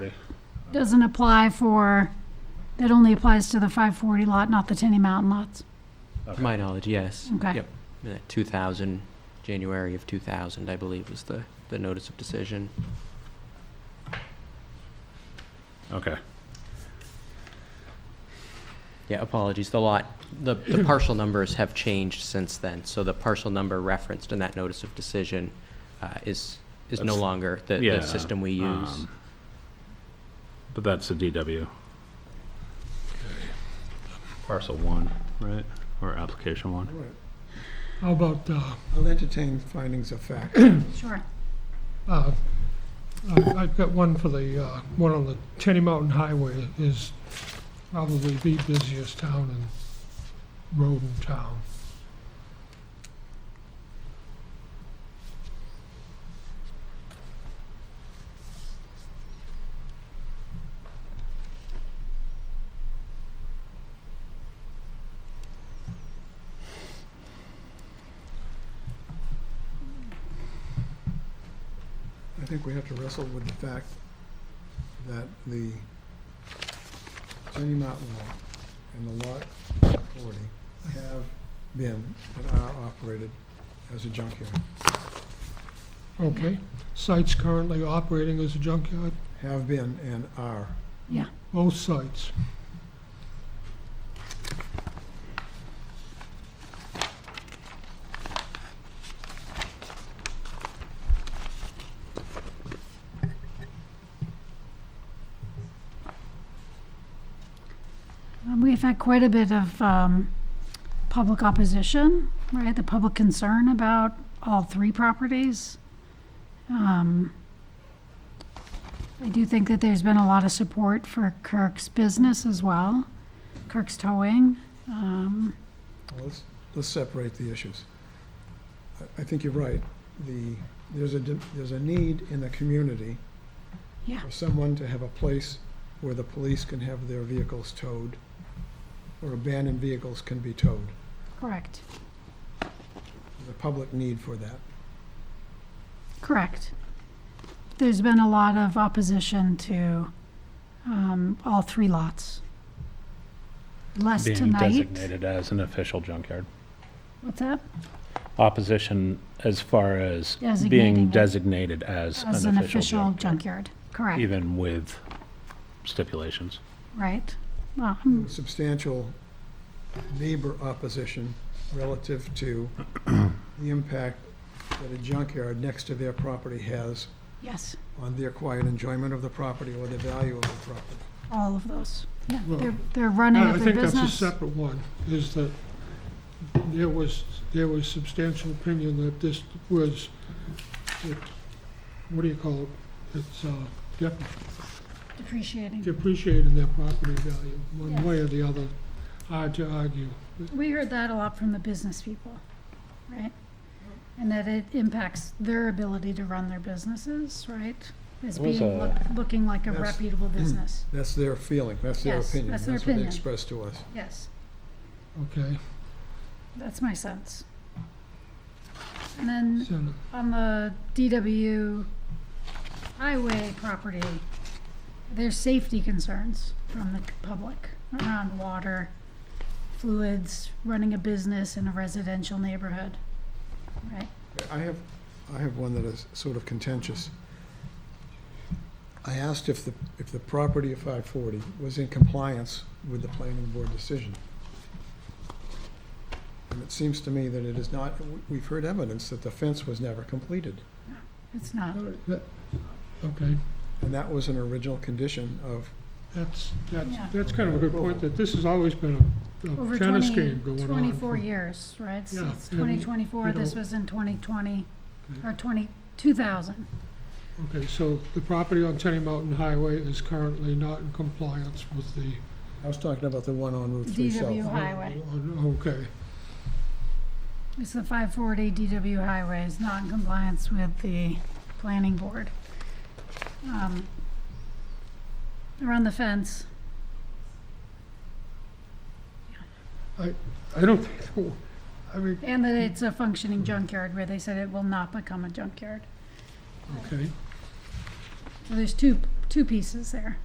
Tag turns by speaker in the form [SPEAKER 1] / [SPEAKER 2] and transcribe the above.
[SPEAKER 1] doesn't apply for, that only applies to the 540 lot, not the Tenny Mountain lots.
[SPEAKER 2] To my knowledge, yes.
[SPEAKER 1] Okay.
[SPEAKER 2] Yep. In that 2000, January of 2000, I believe, was the, the notice of decision.
[SPEAKER 3] Okay.
[SPEAKER 2] Yeah, apologies, the lot, the, the partial numbers have changed since then, so the partial number referenced in that notice of decision uh, is, is no
[SPEAKER 3] That's-
[SPEAKER 2] longer the,
[SPEAKER 3] Yeah,
[SPEAKER 2] the system we use.
[SPEAKER 3] um, But that's the DW. Parcel one, right? Or application one?
[SPEAKER 4] How about, uh,
[SPEAKER 5] I'll entertain findings of fact.
[SPEAKER 1] Sure.
[SPEAKER 4] uh, I- I've got one for the, uh, one on the Tenny Mountain Highway is probably the busiest town and road in town.
[SPEAKER 5] I think we have to wrestle with the fact that the Tenny Mountain Lot and the Lot 40 have been and are operated as a junkyard.
[SPEAKER 4] Okay, site's currently operating as a junkyard,
[SPEAKER 5] Have been and are.
[SPEAKER 4] both sites.
[SPEAKER 1] Um, We've had quite a bit of um, public opposition, right? The public concern about all three properties. Um, I do think that there's been a lot of support for Kirk's business as well, Kirk's Towing. Um,
[SPEAKER 5] Well, Let's, let's separate the issues. I- I think you're right. The, there's a, de- there's a need in the community
[SPEAKER 1] Yeah.
[SPEAKER 5] for someone to have a place where the police can have their vehicles towed, or abandoned vehicles can be towed.
[SPEAKER 1] Correct,
[SPEAKER 5] There's a public need for that.
[SPEAKER 1] correct. There's been a lot of opposition to um, all three lots. Less
[SPEAKER 3] Being
[SPEAKER 1] tonight.
[SPEAKER 3] designated as an official junkyard.
[SPEAKER 1] What's that?
[SPEAKER 3] Opposition as far as
[SPEAKER 1] Designating
[SPEAKER 3] being
[SPEAKER 1] it.
[SPEAKER 3] designated as
[SPEAKER 1] As an official
[SPEAKER 3] junkyard,
[SPEAKER 1] junkyard, correct,
[SPEAKER 3] Even with stipulations.
[SPEAKER 1] right? Well, I'm-
[SPEAKER 5] Substantial neighbor opposition relative to the impact that a junkyard next to their property has
[SPEAKER 1] yes,
[SPEAKER 5] on their quiet enjoyment of the property or the value of the property.
[SPEAKER 1] all of those. Yeah,
[SPEAKER 4] Well,
[SPEAKER 1] they're, they're running
[SPEAKER 4] I
[SPEAKER 1] of their
[SPEAKER 4] think that's a
[SPEAKER 1] business.
[SPEAKER 4] separate one, is that there was, there was substantial opinion that this was, it- what do you call it? It's, uh, dep-
[SPEAKER 1] Depreciating.
[SPEAKER 4] depreciating their property value,
[SPEAKER 1] Yes.
[SPEAKER 4] one way or the other, hard to argue.
[SPEAKER 1] We heard that a lot from the business people, right? And that it impacts their ability to run their business, right? As
[SPEAKER 3] There was
[SPEAKER 1] being,
[SPEAKER 3] a-
[SPEAKER 1] look- looking like a
[SPEAKER 5] Yes.
[SPEAKER 1] reputable
[SPEAKER 4] Mm.
[SPEAKER 1] business,
[SPEAKER 5] That's their feeling, that's their
[SPEAKER 1] Yes,
[SPEAKER 5] opinion.
[SPEAKER 1] that's their
[SPEAKER 5] what they
[SPEAKER 1] opinion.
[SPEAKER 5] expressed to us.
[SPEAKER 1] yes,
[SPEAKER 4] Okay,
[SPEAKER 1] that's my sense. And then
[SPEAKER 4] so,
[SPEAKER 1] on the DW highway property, there's safety concerns from the public around water, fluids, running a business in a residential neighborhood, right?
[SPEAKER 5] I have, I have one that is sort of contentious. I asked if the, if the property of 540 was in compliance with the planning board decision. And it seems to me that it is not, We- we've heard evidence that the fence was never completed.
[SPEAKER 1] It's not,
[SPEAKER 4] that- okay,
[SPEAKER 5] And that was an original condition of,
[SPEAKER 4] that's, that's,
[SPEAKER 1] Yeah.
[SPEAKER 4] that's kind of a good point, that this has always been a-
[SPEAKER 1] over
[SPEAKER 4] a tennis
[SPEAKER 1] twenty,
[SPEAKER 4] game going on.
[SPEAKER 1] twenty-four
[SPEAKER 4] for-
[SPEAKER 1] years, right?
[SPEAKER 4] Yeah,
[SPEAKER 1] Since
[SPEAKER 4] and we-
[SPEAKER 1] twenty twenty-four,
[SPEAKER 4] you
[SPEAKER 1] this
[SPEAKER 4] know-
[SPEAKER 1] was in twenty twenty,
[SPEAKER 4] Okay.
[SPEAKER 1] or twenty, two thousand,
[SPEAKER 4] Okay, so the property on Tenny Mountain Highway is currently not in compliance with the
[SPEAKER 5] I was talking about the one on Route 3 South.
[SPEAKER 1] DW highway.
[SPEAKER 4] Oh, Okay,
[SPEAKER 1] It's the five forty DW highway is not in compliance with the planning board. Um, Around the fence,
[SPEAKER 4] I don't think, I mean,
[SPEAKER 1] and that it's a functioning junkyard where they said it will not become a junkyard.
[SPEAKER 4] okay.
[SPEAKER 1] So there's two, two pieces there.